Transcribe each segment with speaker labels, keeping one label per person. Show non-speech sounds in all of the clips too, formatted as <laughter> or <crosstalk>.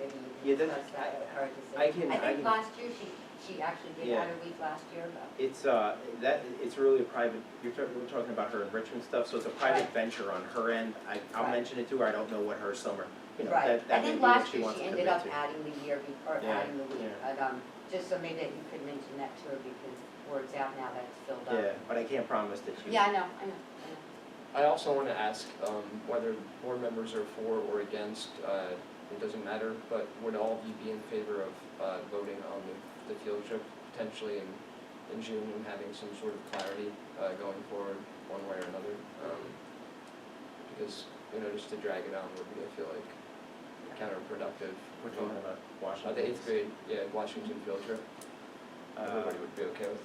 Speaker 1: maybe
Speaker 2: Yeah,
Speaker 1: you can
Speaker 2: then
Speaker 1: discuss that with her to see.
Speaker 2: I can-
Speaker 1: I
Speaker 2: I
Speaker 1: think
Speaker 2: can-
Speaker 1: last year she, she actually did
Speaker 2: Yeah.
Speaker 1: out a week last year, but
Speaker 2: It's, uh, that, it's really a private, you're talking, we're talking about her enrichment stuff, so it's a private
Speaker 1: Right.
Speaker 2: venture on her end. I, I'll
Speaker 1: Right.
Speaker 2: mention it to her, I don't know what her summer, you know,
Speaker 1: Right,
Speaker 2: that,
Speaker 1: I
Speaker 2: that may be
Speaker 1: think
Speaker 2: what
Speaker 1: last
Speaker 2: she
Speaker 1: year
Speaker 2: wants
Speaker 1: she
Speaker 2: to
Speaker 1: ended
Speaker 2: commit
Speaker 1: up
Speaker 2: to.
Speaker 1: adding the year, be- or
Speaker 2: Yeah,
Speaker 1: adding the week,
Speaker 2: yeah.
Speaker 1: but, um, just so maybe that you could mention that to her because word's out now that it's filled up.
Speaker 2: Yeah, but I can't promise that she.
Speaker 1: Yeah, I know, I know, I know.
Speaker 3: I also want to ask um, whether board members are for or against, uh, it doesn't matter, but would all of you be in favor of uh, voting on the the field trip potentially in, in June and having some sort of clarity uh, going forward one way or another? Um, Because, you know, just to drag it on would be, I feel like, counterproductive.
Speaker 2: We're talking about
Speaker 3: Uh,
Speaker 2: Washington.
Speaker 3: The eighth grade, yeah, Washington field trip,
Speaker 2: Uh,
Speaker 3: everybody would be okay with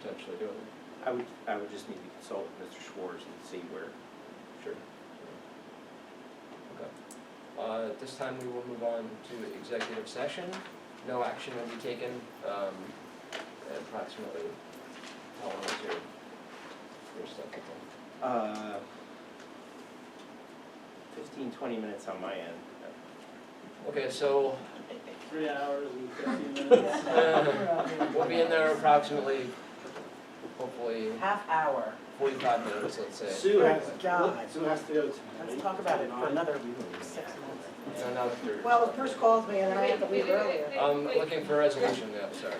Speaker 3: potentially doing it,
Speaker 2: I would, I would just need to consult with Mr. Schwartz and see where,
Speaker 3: sure. Okay. Uh, At this time, we will move on to executive session. No action will be taken, um, approximately, how long is your, your stuff?
Speaker 2: uh, fifteen, twenty minutes on my end.
Speaker 3: Okay, so
Speaker 4: Three hours and fifteen
Speaker 5: <laughs>
Speaker 4: minutes.
Speaker 3: um, we'll be in there approximately, hopefully,
Speaker 5: Half hour.
Speaker 3: forty-five minutes, let's say.
Speaker 4: Sue has,
Speaker 5: Good God.
Speaker 4: Sue has to go tonight.
Speaker 5: Let's talk about it for another six months.
Speaker 3: No, not if there's-
Speaker 5: Well, the first calls me and then I have to leave earlier.
Speaker 3: I'm looking for a resolution now, sorry.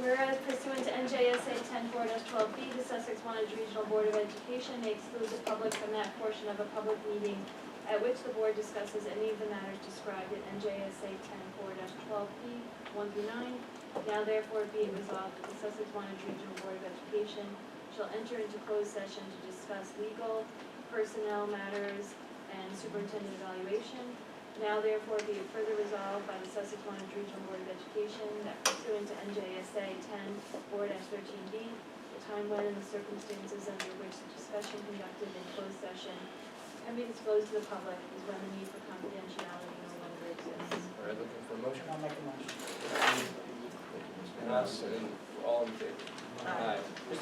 Speaker 6: Whereas pursuant to NJSA ten four twelve B, the Sussex Wantage Regional Board of Education may exclude the public from that portion of a public meeting at which the board discusses any of the matters described in NJSA ten four twelve B, one through nine. Now therefore be it resolved that the Sussex Wantage Regional Board of Education shall enter into closed session to discuss legal, personnel matters, and superintendent evaluation, now therefore be it further resolved by the Sussex Orange Regional Board of Education that pursuant to NJSA ten four thirteen B, the time when and the circumstances under which the discussion conducted in closed session can be disclosed to the public is when the need for confidentiality no longer exists.
Speaker 3: All right, looking for a motion.
Speaker 5: I'll make a motion.
Speaker 3: Thank you, Ms. Knaus, and all in favor?
Speaker 5: Aye.